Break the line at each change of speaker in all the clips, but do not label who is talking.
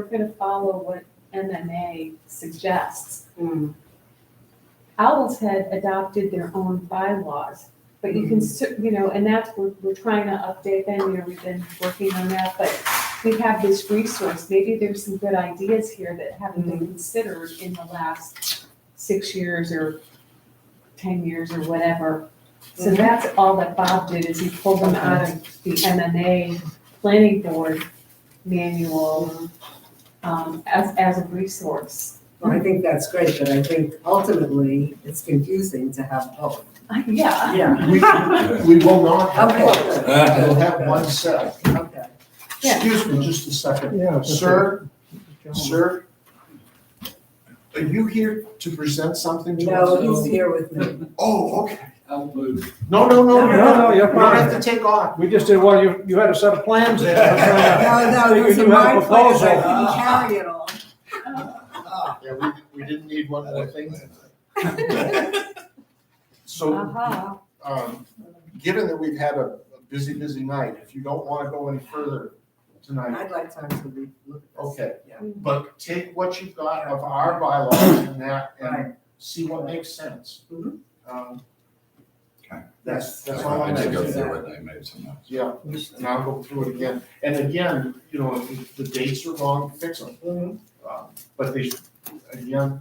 gonna follow what MMA suggests. Owl's Head adopted their own bylaws, but you can, cer- you know, and that's, we're, we're trying to update them, you know, we've been working on that, but we have this resource, maybe there's some good ideas here that haven't been considered in the last six years or ten years or whatever. So
Mhm.
that's all that Bob did, is he pulled them out of the MMA planning board manual, um, as, as a resource.
Well, I think that's great, but I think ultimately it's confusing to have both.
I- Yeah,
Yeah.
We, we will not have both.
Okay,
We'll have one set.
okay.
Yeah.
Excuse me just a second.
Yeah.
Sir, sir, are you here to present something to us?
No, he's here with me.
Oh, okay.
I'll move.
No, no,
No, no,
no.
no, you're
You don't
fine.
have to take off.
We just did, well, you, you had a set of plans there.
No, no,
You
it was
do
in
have
my
a
place, I couldn't
proposal.
carry it all.
Yeah, we, we didn't need one more thing.
Uh-huh.
So,
aha,
um, given that we've had a a busy, busy night, if you don't want to go any further tonight,
I'd like time to re- look at this.
Okay.
Yeah.
But take what you've got of our bylaws and that and
Right.
see what makes sense.
Mhm.
Um,
Okay.
That's, that's all
I
I'm
did
did go
asking.
through it, I made some notes.
Yeah, and I'll go through it again. And again, you know, if the dates are wrong, fix them.
Mhm.
Um, But they, again,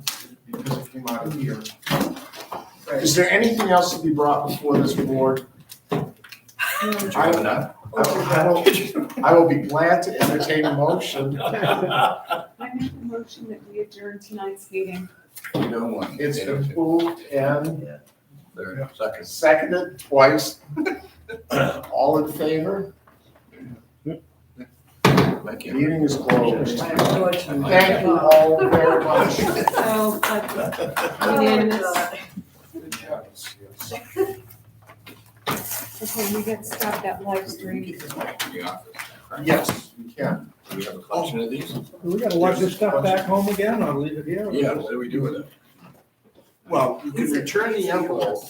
because it came out of here.
Right.
Is there anything else to be brought before this board?
Did you
I,
have
I
enough?
Oh,
will, I will be glad to entertain a motion.
I make a motion that we adjourn tonight's meeting.
You don't want.
It's been moved and
There, second.
Seconded twice. All in favor?
Thank you.
Meeting is closed.
Unfortunately.
Thank you all very much.
So, uh,
Oh,
Unanimous.
God.
okay, we got to stop that live
We
stream.
can keep this back in the office, correct?
Yes, you can.
Do we have a collection of these?
Do We gotta watch this stuff back home again, or leave it here?
Yeah, what do we do with it?
Well, you can return the envelope.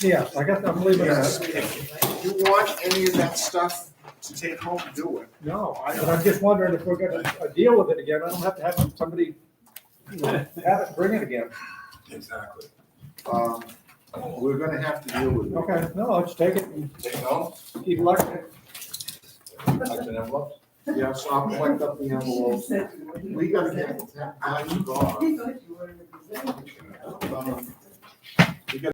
Yes, I guess I'm leaving
Yes,
that.
if you want any of that stuff to take home, do it.
No, I, I'm just wondering if we're gonna uh, deal with it again, I don't have to have somebody, you know, have it, bring it again.
Exactly.
Um, We're gonna have to deal with it.
Okay, no, let's take it and
Take home,
keep lucky.
collection envelopes.
Yeah, so I'll collect up the envelope. We gotta get uh, that, I'm
He thought you were in the museum.
Um,